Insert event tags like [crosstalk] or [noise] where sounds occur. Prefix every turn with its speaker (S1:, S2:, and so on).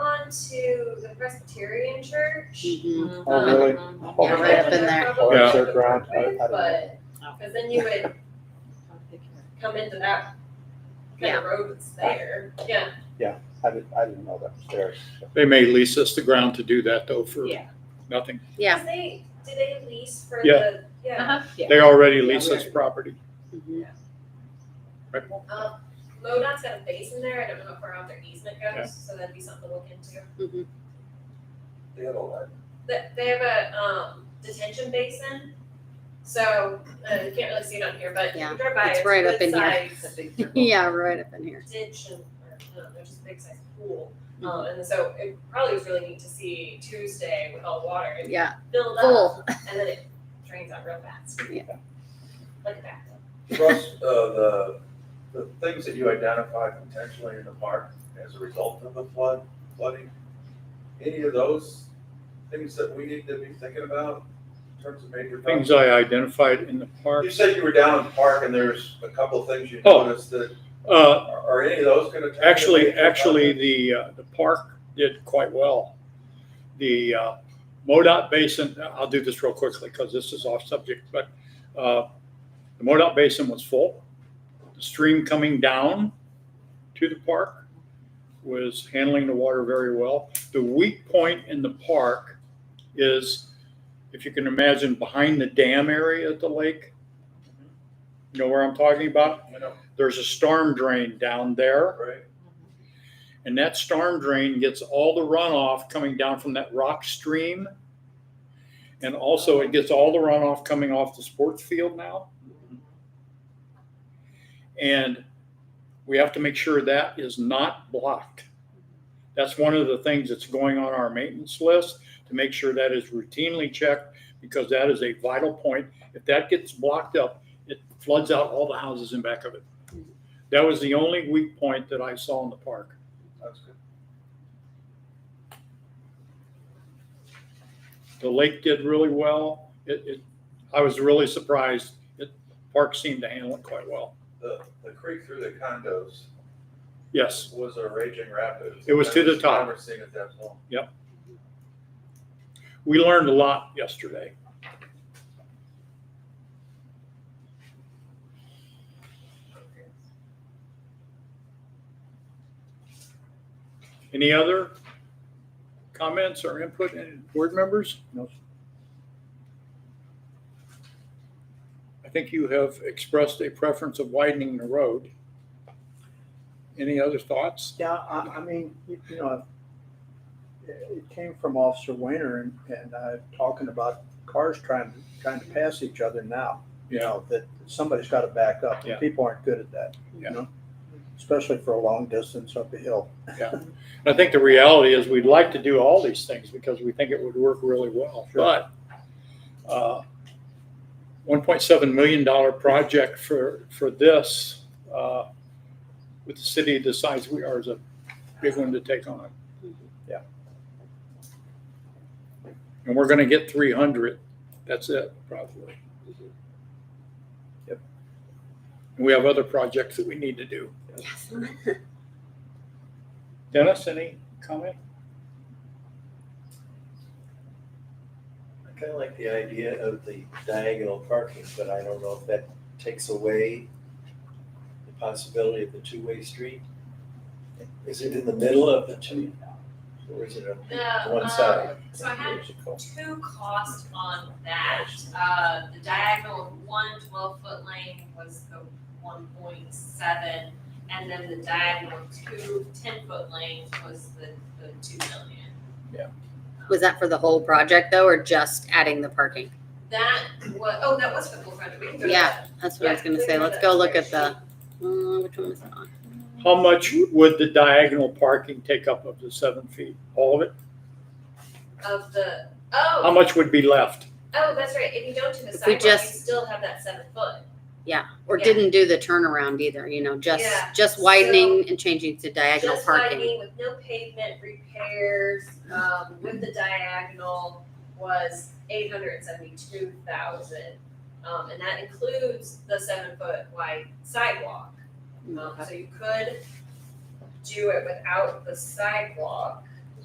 S1: Presbyterian church.
S2: Mhm.
S3: Oh,
S1: Um,
S3: really?
S2: Yeah, right up in there.
S1: probably
S3: Yeah.
S1: the
S3: Fairground, I- I
S1: appropriate,
S3: don't know.
S1: But,
S4: Oh.
S1: cause then you would come into that kind of road that's there, yeah.
S3: I didn't, I didn't know that was there. so.
S5: They may lease us the ground to do that though for
S4: Yeah.
S5: nothing.
S2: Yeah.
S1: Cause they, do they lease for
S5: Yeah.
S1: the, yeah,
S4: Uh-huh, yeah.
S5: They already
S4: Yeah,
S5: lease
S4: we
S5: us property.
S2: Mhm.
S5: right?
S2: Uh-huh.
S1: um, MoDOT's got a basin there, I don't know if we're out their easement
S5: Yeah.
S1: goes, so that'd be something to look into.
S3: They had all
S1: They, they have a, um, detention basin, so, uh, you can't really see it on here, but if
S2: Yeah,
S1: you drive by,
S2: it's
S1: it's
S2: right up in
S1: good
S2: here.
S1: size
S2: Yeah, right up in here.
S1: ditch and, or, no, they're just a big size pool.
S2: Mm-hmm.
S1: Um, and so it probably was really neat to see Tuesday with all the water, it
S2: Yeah,
S1: filled up,
S2: full.
S1: [laughs] and then it drains out real fast.
S2: Yeah.
S1: Like a bathtub.
S6: Russ, uh, the, the things that you identified potentially in the park as a result of the flood, flooding, any of those things that we need to be thinking about in terms of major
S5: Things
S6: problems?
S5: I identified in the park.
S6: You said you were down in the park and there's a couple of things you
S5: Oh.
S6: noticed that,
S5: Uh,
S6: are, are any of those gonna? turn into
S5: Actually,
S6: major problems?
S5: actually, the, uh, the park did quite well. The uh, MoDOT basin, I'll do this real quickly because this is off subject, but uh, the MoDOT basin was full. The stream coming down to the park was handling the water very well. The weak point in the park is, if you can imagine, behind the dam area at the lake. You know where I'm talking about?
S6: You know,
S5: There's a storm drain down there.
S6: right?
S5: And that storm drain gets all the runoff coming down from that rock stream. And also it gets all the runoff coming off the sports field now. And we have to make sure that is not blocked. That's one of the things that's going on our maintenance list to make sure that is routinely checked because that is a vital point. If that gets blocked up, it floods out all the houses in back of it. That was the only weak point that I saw in the park.
S6: That's good.
S5: The lake did really well. It, it, I was really surprised. It, park seemed to handle it quite well.
S6: The, the creek through the condos
S5: Yes,
S6: was a raging rapid.
S5: It was to the top.
S6: Never seen it that long.
S5: we learned a lot yesterday. Any other comments or input, any board members? No. I think you have expressed a preference of widening the road. Any other thoughts?
S3: Yeah, I, I mean, you you know, it it came from Officer Weiner and, and I talking about cars trying, trying to pass each other now. You know, that somebody's gotta back up.
S5: Yeah.
S3: People aren't good at that, you
S5: Yeah.
S3: know? Especially for a long distance up a hill.
S5: I think the reality is we'd like to do all these things because we think it would work really well.
S3: Sure.
S5: But uh, $1.7 million project for, for this, uh, with the city the size we are is a big one to take on.
S3: Yeah.
S5: And we're going to get 300. That's it, probably.
S3: Yep.
S5: And we have other projects that we need to do.
S2: Yes.
S5: Dennis, any comment?
S7: I kind of like the idea of the diagonal parking, but I don't know if that takes away the possibility of the two-way street. Is it in the middle of the two, or is it
S1: The,
S7: on one
S1: um,
S7: side?
S1: So I had two costs on that. Uh, the diagonal of one 12 foot lane was the one point seven, and then the diagonal of two 10 foot lanes was the, the two million.
S7: Yeah.
S2: Was that for the whole project though, or just adding the parking?
S1: That was, oh, that was for the full project, we can go to
S2: Yeah.
S1: that.
S2: That's what I was gonna say. Let's go look at the, mm, which one was it on?
S5: How much would the diagonal parking take up of the seven feet? All of it?
S1: Of the,
S5: How
S1: oh,
S5: much would be left?
S1: oh, that's right, if you don't do the
S2: If we
S1: sidewalk, you
S2: just-
S1: still have that seven foot.
S2: Yeah, or
S1: Yeah.
S2: didn't do the turnaround either, you know, just,
S1: Yeah.
S2: just widening and changing to diagonal
S1: Just
S2: parking.
S1: widening with no pavement repairs, um, with the diagonal was eight hundred and seventy-two thousand. Um, and that includes the seven-foot wide sidewalk. Um, so you could do it without the sidewalk.